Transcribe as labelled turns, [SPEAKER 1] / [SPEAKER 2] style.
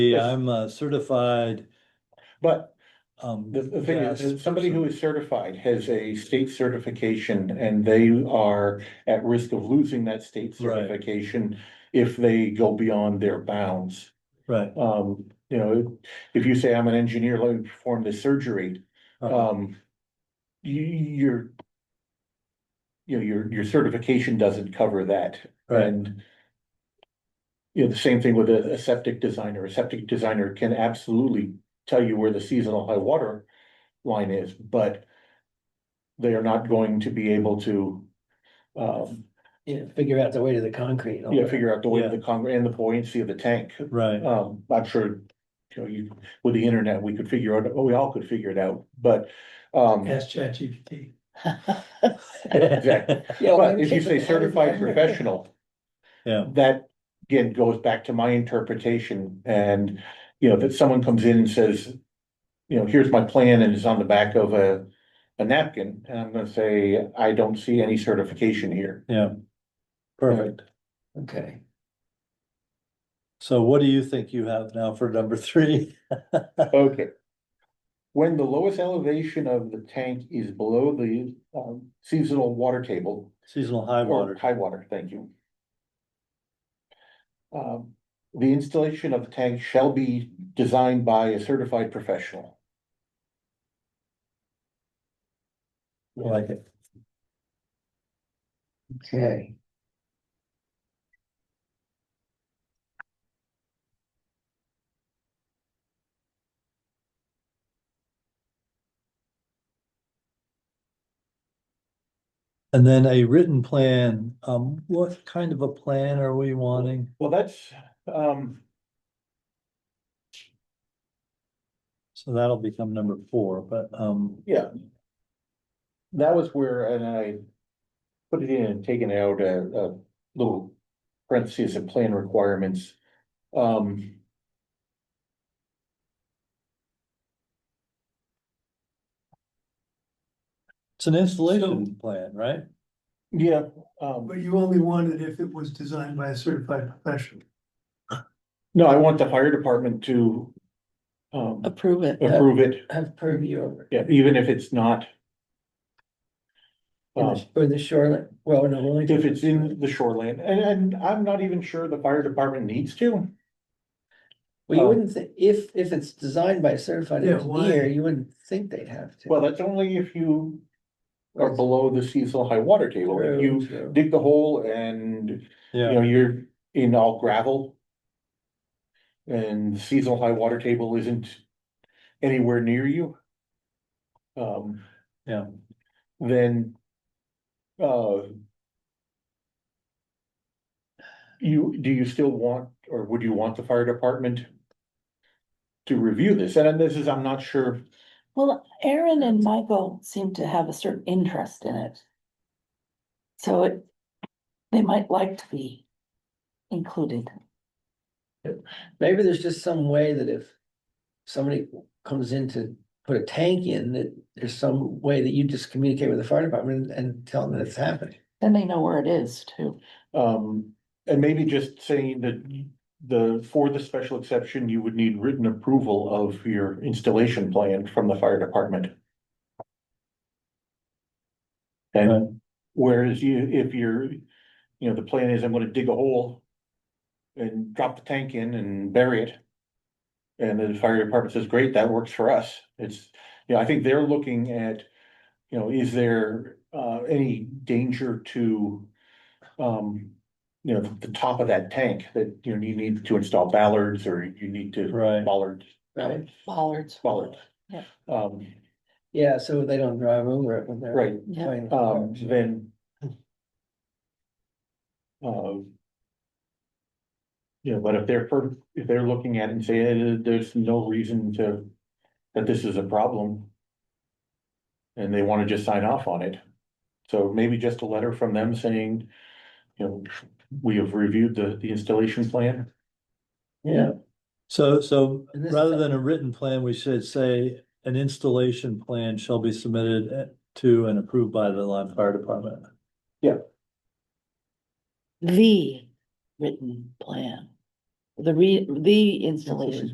[SPEAKER 1] Yeah, I'm a certified,
[SPEAKER 2] But
[SPEAKER 1] um.
[SPEAKER 2] the, the thing is,
[SPEAKER 1] gas
[SPEAKER 2] is somebody who
[SPEAKER 1] person.
[SPEAKER 2] is certified has a state certification and they are at risk of losing that state
[SPEAKER 1] Right.
[SPEAKER 2] certification if they go beyond their bounds.
[SPEAKER 1] Right.
[SPEAKER 2] Um, you know, if you say, I'm an engineer, let me perform this surgery,
[SPEAKER 1] uh,
[SPEAKER 2] um, you, you're you know, your, your certification doesn't cover that.
[SPEAKER 1] Right,
[SPEAKER 2] And. You know, the same thing with a, a septic designer, a septic designer can absolutely tell you where the seasonal high water line is, but. They are not going to be able to, um,
[SPEAKER 3] Yeah, figure out the weight of the concrete. and all
[SPEAKER 2] yeah,
[SPEAKER 3] that.
[SPEAKER 2] figure out the weight of
[SPEAKER 1] Yeah.
[SPEAKER 2] the concrete and the buoyancy of the tank.
[SPEAKER 1] right,
[SPEAKER 2] Um, I'm sure, you know, you, with the internet, we could figure out, oh, we all could figure it out, but, um.
[SPEAKER 4] Ask ChatGPT.
[SPEAKER 2] Exactly.
[SPEAKER 3] Yeah, well,
[SPEAKER 2] But if you say certified professional.
[SPEAKER 1] Yeah.
[SPEAKER 2] That again goes back to my interpretation and, you know, that someone comes in and says. You know, here's my plan and it's on the back of a, a napkin, and I'm gonna say, I don't see any certification here.
[SPEAKER 1] perfect.
[SPEAKER 3] Okay,
[SPEAKER 1] So what do you think you have now for number three?
[SPEAKER 2] Okay. When the lowest elevation of the tank is below the um seasonal water table,
[SPEAKER 1] Seasonal high
[SPEAKER 2] Or
[SPEAKER 1] water,
[SPEAKER 2] high water, thank you. Um, the installation of the tank shall be designed by a certified professional.
[SPEAKER 1] I like it,
[SPEAKER 3] okay.
[SPEAKER 1] and then a written plan, um, what kind of a plan are we wanting?
[SPEAKER 2] Well, that's, um,
[SPEAKER 1] So that'll become number four, but, um,
[SPEAKER 2] yeah. That was where, and I put it in and taken out a, a little parentheses of plan requirements. Um.
[SPEAKER 1] it's an installation plan, right?
[SPEAKER 2] Yeah, um,
[SPEAKER 4] But you only wanted if it was designed by a certified professional.
[SPEAKER 2] no, I want the fire department to. Um,
[SPEAKER 3] Approve it.
[SPEAKER 2] approve it,
[SPEAKER 3] Have purview over. it.
[SPEAKER 2] yeah, even if it's not.
[SPEAKER 3] For
[SPEAKER 2] Um,
[SPEAKER 3] the- For the shoreline, well, no, only.
[SPEAKER 2] If it's in the shoreline, and, and I'm not even sure the fire department needs to. um,
[SPEAKER 3] Well, you wouldn't think, if, if it's designed by a certified
[SPEAKER 4] Yeah, why?
[SPEAKER 3] engineer, you wouldn't think they'd have to.
[SPEAKER 2] Well, that's only if you are below the seasonal high water table. If you
[SPEAKER 3] True, true.
[SPEAKER 2] dig the hole and, you
[SPEAKER 1] Yeah,
[SPEAKER 2] know, you're in all gravel. And seasonal high water table isn't anywhere near you. Um,
[SPEAKER 1] yeah,
[SPEAKER 2] then, uh. You, do you still want, or would you want the fire department? To review this, and this is, I'm not sure,
[SPEAKER 5] Well, Aaron and Michael seem to have a certain interest in it. So it, they might like to be included.
[SPEAKER 3] Maybe there's just some way that if somebody comes in to put a tank in, that there's some way that you just communicate with the fire department and tell them that it's happening.
[SPEAKER 5] Then they know where it is too.
[SPEAKER 2] um, and maybe just saying that. The, for the special exception, you would need written approval of your installation plan from the fire department.
[SPEAKER 1] Right.
[SPEAKER 2] And whereas you, if you're, you know, the plan is I'm gonna dig a hole. And drop the tank in and bury it. And then the fire department says, great, that works for us. It's, you know, I think they're looking at, you know, is there uh any danger to? Um, you know, the top of that tank that, you know, you need to install ballards or you need to
[SPEAKER 1] right,
[SPEAKER 2] bollards,
[SPEAKER 3] Right.
[SPEAKER 5] Bollards.
[SPEAKER 2] bollards.
[SPEAKER 5] Yeah.
[SPEAKER 2] Um,
[SPEAKER 3] Yeah, so they don't drive over it when they're.
[SPEAKER 2] right,
[SPEAKER 5] Yeah.
[SPEAKER 3] playing with
[SPEAKER 2] um,
[SPEAKER 3] cars.
[SPEAKER 2] then. Uh. You know, but if they're, for- if they're looking at it and saying, "Eh, there's no reason to, that this is a problem. And they wanna just sign off on it. So maybe just a letter from them saying, you know, we have reviewed the, the installation plan.
[SPEAKER 3] Yeah,
[SPEAKER 1] so, so
[SPEAKER 3] And this-
[SPEAKER 1] Rather than a written plan, we should say an installation plan shall be submitted eh, to and approved by the Lime Fire Department.
[SPEAKER 5] The written plan. The re, the installation